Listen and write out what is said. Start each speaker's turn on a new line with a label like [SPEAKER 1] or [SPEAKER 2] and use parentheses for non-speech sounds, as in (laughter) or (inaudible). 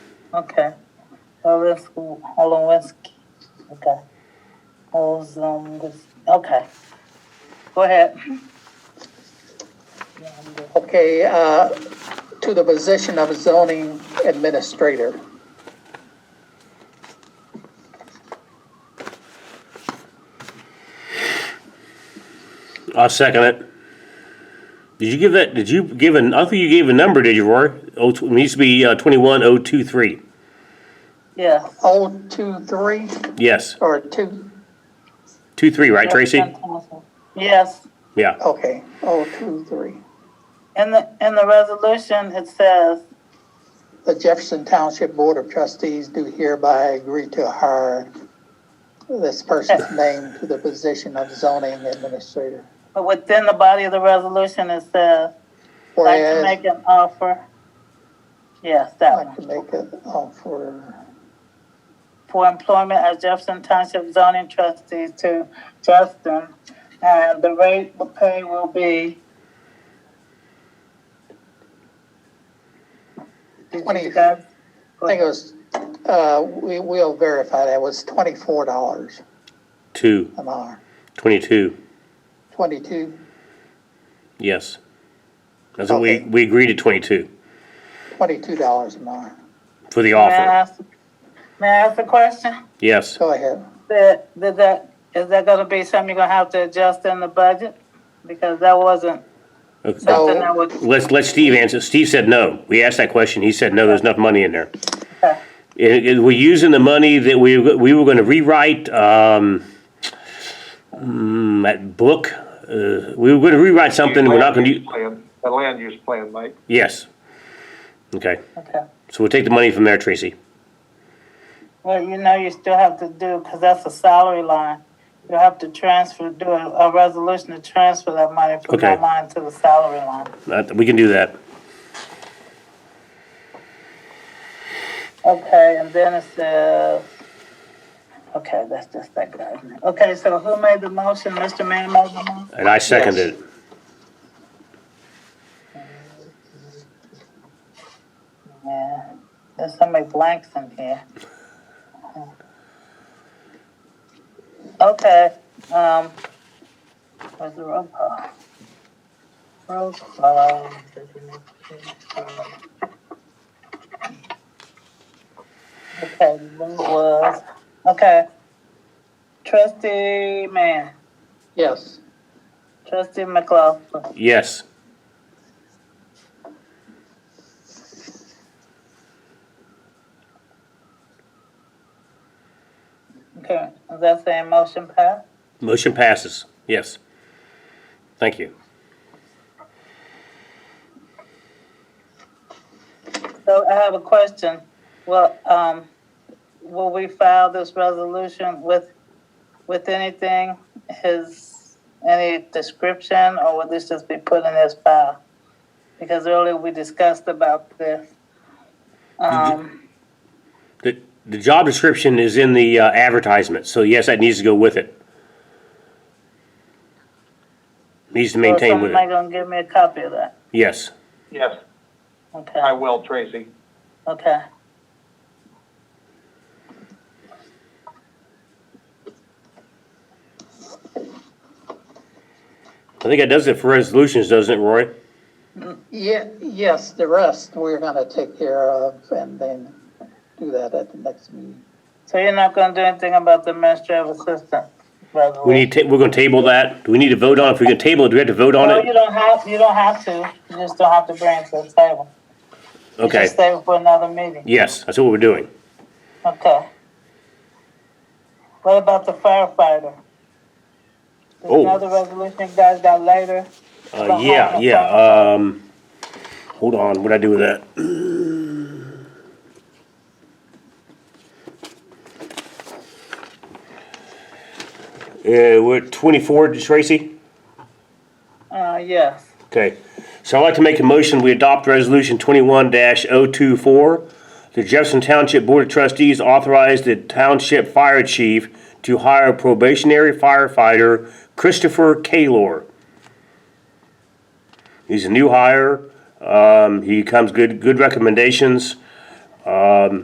[SPEAKER 1] Okay. Lawrence Holowinski. Okay. Holmes, um, this- okay. Go ahead.
[SPEAKER 2] Okay, uh, to the position of zoning administrator.
[SPEAKER 3] I'll second it. Did you give that, did you give an, I don't think you gave a number, did you, Rory? Oh, it needs to be uh, twenty-one oh two three.
[SPEAKER 1] Yeah.
[SPEAKER 2] Oh, two, three,
[SPEAKER 3] Yes,
[SPEAKER 2] or two,
[SPEAKER 3] two, three, right, Tracy?
[SPEAKER 1] Yes.
[SPEAKER 3] Yeah,
[SPEAKER 2] okay, oh, two, three.
[SPEAKER 1] In the, in the resolution, it says,
[SPEAKER 2] The Jefferson Township Board of Trustees do hereby agree to hire this (laughs) person's name to the position of zoning administrator.
[SPEAKER 1] but within the body of the resolution, it says, like to
[SPEAKER 2] Whereas,
[SPEAKER 1] make an offer. Yes, that
[SPEAKER 2] like
[SPEAKER 1] one.
[SPEAKER 2] to make an offer
[SPEAKER 1] For employment as Jefferson Township zoning trustee to Justin. And the rate of pay will be. Did you
[SPEAKER 2] Twenty.
[SPEAKER 1] guys-
[SPEAKER 2] I think it was, uh, we, we'll verify that, it was twenty-four dollars
[SPEAKER 3] two,
[SPEAKER 2] an hour,
[SPEAKER 3] twenty-two,
[SPEAKER 2] twenty-two,
[SPEAKER 3] yes. That's what we,
[SPEAKER 2] Okay.
[SPEAKER 3] we agreed to twenty-two
[SPEAKER 2] twenty-two dollars an hour.
[SPEAKER 3] for the
[SPEAKER 1] May I
[SPEAKER 3] offer,
[SPEAKER 1] ask- may I ask a question?
[SPEAKER 3] yes.
[SPEAKER 2] Go ahead.
[SPEAKER 1] That, that, that, is that gonna be something you're gonna have to adjust in the budget? Because that wasn't
[SPEAKER 3] Okay.
[SPEAKER 2] No.
[SPEAKER 1] something that would,
[SPEAKER 3] Let's, let Steve answer. Steve said no. We asked that question, he said no, there's enough money in there.
[SPEAKER 1] Okay.
[SPEAKER 3] It, it, we're using the money that we, we were gonna rewrite, um, mm, that book, uh, we were gonna rewrite something, we're not gonna,
[SPEAKER 4] Land use
[SPEAKER 3] u-
[SPEAKER 4] plan, The land use plan, Mike.
[SPEAKER 3] yes. Okay,
[SPEAKER 1] okay.
[SPEAKER 3] so we'll take the money from there, Tracy.
[SPEAKER 1] Well, you know, you still have to do, cause that's a salary line. You have to transfer, do a, a resolution to transfer that money from that
[SPEAKER 3] Okay.
[SPEAKER 1] line to the salary line.
[SPEAKER 3] Uh, we can do that.
[SPEAKER 1] Okay, and then it says, okay, that's just that guy. Okay, so who made the motion? Mr. Manning made the motion?
[SPEAKER 3] And I seconded it.
[SPEAKER 1] Yeah, there's so many blanks in here. Okay, um, where's the roll call? Roll call. Okay, Lou was, okay. Trustee Mann,
[SPEAKER 2] Yes,
[SPEAKER 1] trustee McLaughlin,
[SPEAKER 3] Yes,
[SPEAKER 1] okay, is that saying motion passed?
[SPEAKER 3] motion passes, yes. Thank you.
[SPEAKER 1] So I have a question. Well, um, will we file this resolution with, with anything, his, any description, or will this just be put in his file? Because earlier we discussed about this. Um,
[SPEAKER 3] The, the job description is in the uh, advertisement, so yes, that needs to go with it. Needs to
[SPEAKER 1] so
[SPEAKER 3] maintain with
[SPEAKER 1] somebody
[SPEAKER 3] it,
[SPEAKER 1] gonna give me a copy of that?
[SPEAKER 3] yes.
[SPEAKER 4] Yes, I
[SPEAKER 1] Okay,
[SPEAKER 4] will, Tracy.
[SPEAKER 1] okay.
[SPEAKER 3] I think that does it for resolutions, doesn't it, Roy?
[SPEAKER 2] yeah, yes, the rest we're gonna take care of and then do that at the next meeting.
[SPEAKER 1] So you're not gonna do anything about the administrative assistant resolution?
[SPEAKER 3] We need, ta- we're gonna table that, do we need to vote on, it? if we can table it, do we have to vote on
[SPEAKER 1] No, you
[SPEAKER 3] it?
[SPEAKER 1] don't have, you don't have to. You just don't have to bring it to the table. You
[SPEAKER 3] Okay,
[SPEAKER 1] just save it for another meeting.
[SPEAKER 3] yes, that's what we're doing.
[SPEAKER 1] Okay. What about the firefighter? There's
[SPEAKER 3] Oh.
[SPEAKER 1] another resolution you guys got later.
[SPEAKER 3] Uh, yeah, yeah, um, hold on, what'd I do with that? (clears throat) Uh, we're at twenty-four, Tracy?
[SPEAKER 1] Uh, yes.
[SPEAKER 3] Okay, so I'd like to make a motion, we adopt resolution twenty-one 24 The Jefferson Township Board of Trustees authorize the township fire chief to hire probationary firefighter Christopher Kalor. He's a new hire, um, he comes good, good recommendations.